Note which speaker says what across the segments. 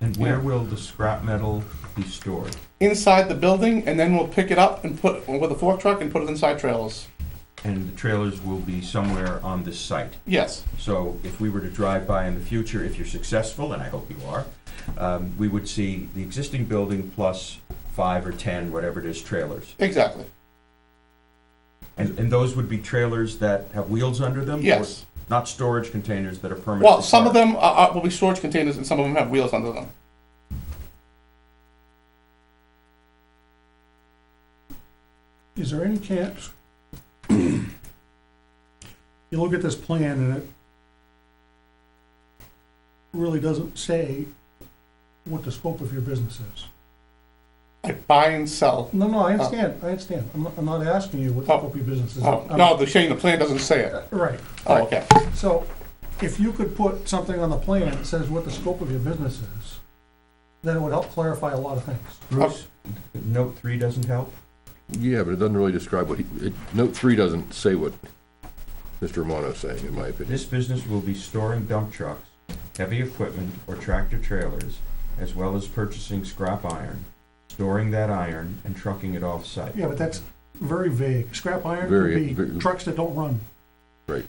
Speaker 1: And where will the scrap metal be stored?
Speaker 2: inside the building, and then we'll pick it up and put with a fork truck and put it inside trailers.
Speaker 1: And the trailers will be somewhere on this site.
Speaker 2: Yes.
Speaker 1: So if we were to drive by in the future, if you're successful, and I hope you are, um, we would see the existing building plus five or 10, whatever it is, trailers.
Speaker 2: Exactly.
Speaker 1: And, and those would be trailers that have wheels under them? or
Speaker 2: Yes.
Speaker 1: Not storage containers that are permanent?
Speaker 2: Well, some of
Speaker 1: storage?
Speaker 2: them are, are, will be storage containers, and some of them have wheels under them.
Speaker 3: Is there any chance? You look at this plan and it really doesn't say what the scope of your business is.
Speaker 2: I buy and sell.
Speaker 3: No, no, I understand, I understand. I'm not, I'm not asking you what the scope of your business is.
Speaker 2: Oh,
Speaker 3: I'm-
Speaker 2: no, the shame the plan doesn't say it.
Speaker 3: Right,
Speaker 2: Oh, okay.
Speaker 3: so if you could put something on the plan that says what the scope of your business is, then it would help clarify a lot of things.
Speaker 1: Bruce, note three doesn't help?
Speaker 4: Yeah, but it doesn't really describe what he, it- note three doesn't say what Mr. Romano's saying, in my opinion.
Speaker 1: This business will be storing dump trucks, heavy equipment, or tractor trailers, as well as purchasing scrap iron, storing that iron, and trucking it off-site.
Speaker 3: Yeah, but that's very vague. Scrap iron
Speaker 4: Very-
Speaker 3: could be
Speaker 4: very-
Speaker 3: trucks that don't run.
Speaker 4: Right.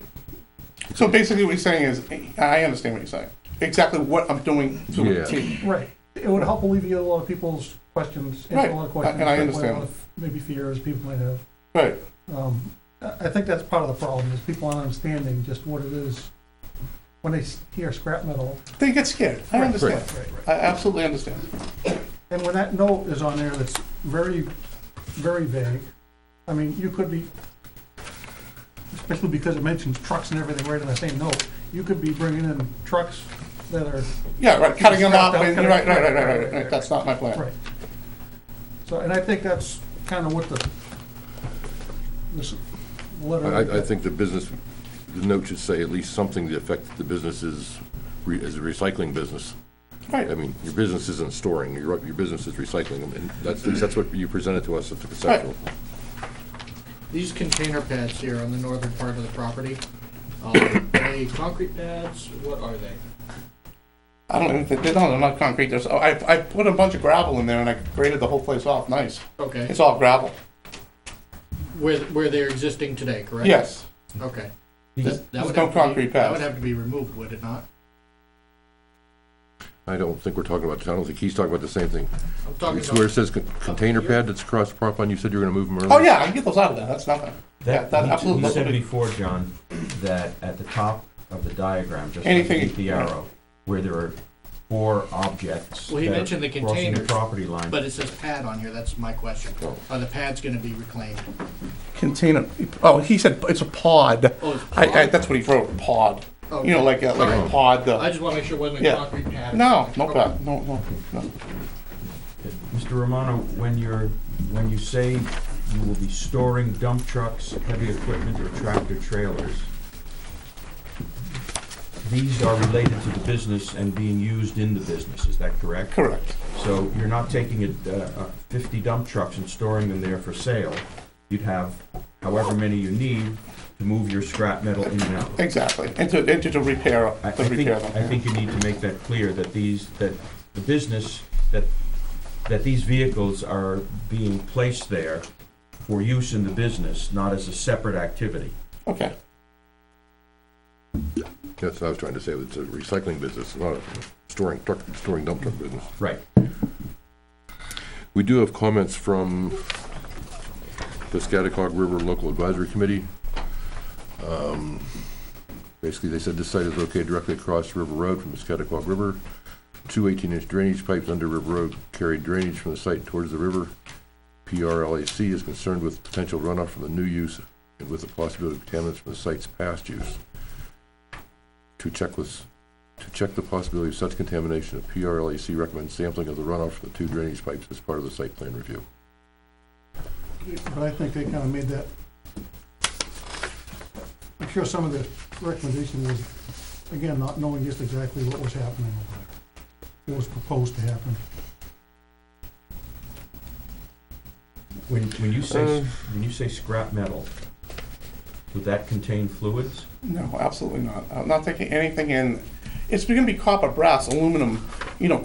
Speaker 2: So basically, what he's saying is, I understand what he's saying. Exactly what I'm doing to
Speaker 4: Yeah.
Speaker 2: achieve.
Speaker 3: Right. It would help alleviate a lot of people's questions, answer
Speaker 2: Right,
Speaker 3: a lot of questions.
Speaker 2: and I
Speaker 3: that way, a
Speaker 2: understand.
Speaker 3: lot of Maybe fears people might have.
Speaker 2: Right.
Speaker 3: Um, I I think that's part of the problem, is people aren't understanding just what it is when they s- hear scrap metal.
Speaker 2: They get scared. I
Speaker 3: Right,
Speaker 2: understand.
Speaker 3: Right, right.
Speaker 2: I absolutely understand.
Speaker 3: And when that note is on there that's very, very vague, I mean, you could be, especially because it mentions trucks and everything right in the same note, you could be bringing in trucks that are
Speaker 2: Yeah, right. Cutting them
Speaker 3: Scrap
Speaker 2: up.
Speaker 3: them,
Speaker 2: And,
Speaker 3: cutting-
Speaker 2: right, right, right, right,
Speaker 3: right,
Speaker 2: right,
Speaker 3: right, right.
Speaker 2: That's not my plan.
Speaker 3: Right. So, and I think that's kind of what the, this letter.
Speaker 4: I, I- I think the business, the note should say at least something to the effect that the business is, re- is a recycling business.
Speaker 2: Right.
Speaker 4: I mean, your business isn't storing, your, your business is recycling, them, and that's, that's what you presented to us at the conceptual.
Speaker 5: These container pads here on the northern part of the property, um, are they concrete pads? What are they?
Speaker 2: I don't even think, they don't, they're not concrete. There's, oh, I, I put a bunch of gravel in there and I graded the whole place off. Nice.
Speaker 5: Okay,
Speaker 2: It's all gravel.
Speaker 5: where, where they're existing today, correct?
Speaker 2: Yes.
Speaker 5: Okay.
Speaker 1: These-
Speaker 5: That- that would
Speaker 2: no
Speaker 5: have to be-
Speaker 2: concrete
Speaker 5: That
Speaker 2: pads.
Speaker 5: would have to be removed, would it not?
Speaker 4: I don't think we're talking about, I don't think he's talking about the same thing.
Speaker 5: I'm talking
Speaker 4: It's Where it
Speaker 5: about,
Speaker 4: says con- container pad that's across the property line, you said you were gonna move them earlier?
Speaker 2: Oh, yeah, I can get those out of there. That's nothing. Yeah,
Speaker 1: That,
Speaker 2: that
Speaker 1: he-
Speaker 2: absolutely-
Speaker 1: he said before, John, that at the top of the diagram, just
Speaker 2: Anything-
Speaker 1: underneath the arrow, where there are four objects.
Speaker 5: Well, he
Speaker 1: that are
Speaker 5: mentioned the
Speaker 1: Crossing the
Speaker 5: containers,
Speaker 1: property line.
Speaker 5: but it says pad on here, that's my question.
Speaker 2: Oh.
Speaker 5: Are the pads gonna be reclaimed?
Speaker 2: Container. Oh, he said it's a pod.
Speaker 5: Oh, it's
Speaker 2: I, I,
Speaker 5: pod?
Speaker 2: that's what he wrote, pod. You know,
Speaker 5: Okay.
Speaker 2: like a, like a
Speaker 5: Alright.
Speaker 2: pod.
Speaker 5: I
Speaker 2: Uh,
Speaker 5: just wanna make sure it wasn't
Speaker 2: Yeah.
Speaker 5: a concrete pad.
Speaker 2: no, no
Speaker 5: Okay.
Speaker 2: pod. No, no, no.
Speaker 1: Mr. Romano, when you're, when you say you will be storing dump trucks, heavy equipment, or tractor trailers, these are related to the business and being used in the business, is that correct?
Speaker 2: Correct.
Speaker 1: So you're not taking it, uh, uh, fifty dump trucks and storing them there for sale. You'd have however many you need to move your scrap metal in and out.
Speaker 2: Exactly. And to, and to, to repair,
Speaker 1: I I
Speaker 2: to
Speaker 1: think,
Speaker 2: repair
Speaker 1: I
Speaker 2: them.
Speaker 1: think you need to make that clear, that these, that the business, that, that these vehicles are being placed there for use in the business, not as a separate activity.
Speaker 2: Okay.
Speaker 4: That's what I was trying to say, it's a recycling business, not a storing truck, storing dump truck business.
Speaker 1: Right.
Speaker 4: We do have comments from the Scatacog River Local Advisory Committee. Um, Basically, they said this site is located directly across River Road from the Scatacog River. Two 18-inch drainage pipes under River Road carry drainage from the site towards the river. PRLAC is concerned with potential runoff from the new use and with the possibility of contaminants from the site's past use. To check with to check the possibility of such contamination, the PRLAC recommends sampling of the runoff from the two drainage pipes as part of the site plan review.
Speaker 3: But I think they kind of made that, I'm sure some of the recommendation was, again, not knowing just exactly what was happening over there, what was proposed to happen.
Speaker 1: When, when you say, s-
Speaker 4: Uh.
Speaker 1: when you say scrap metal, would that contain fluids?
Speaker 2: No, absolutely not. I'm not taking anything in. It's going to be copper, brass, aluminum, you know,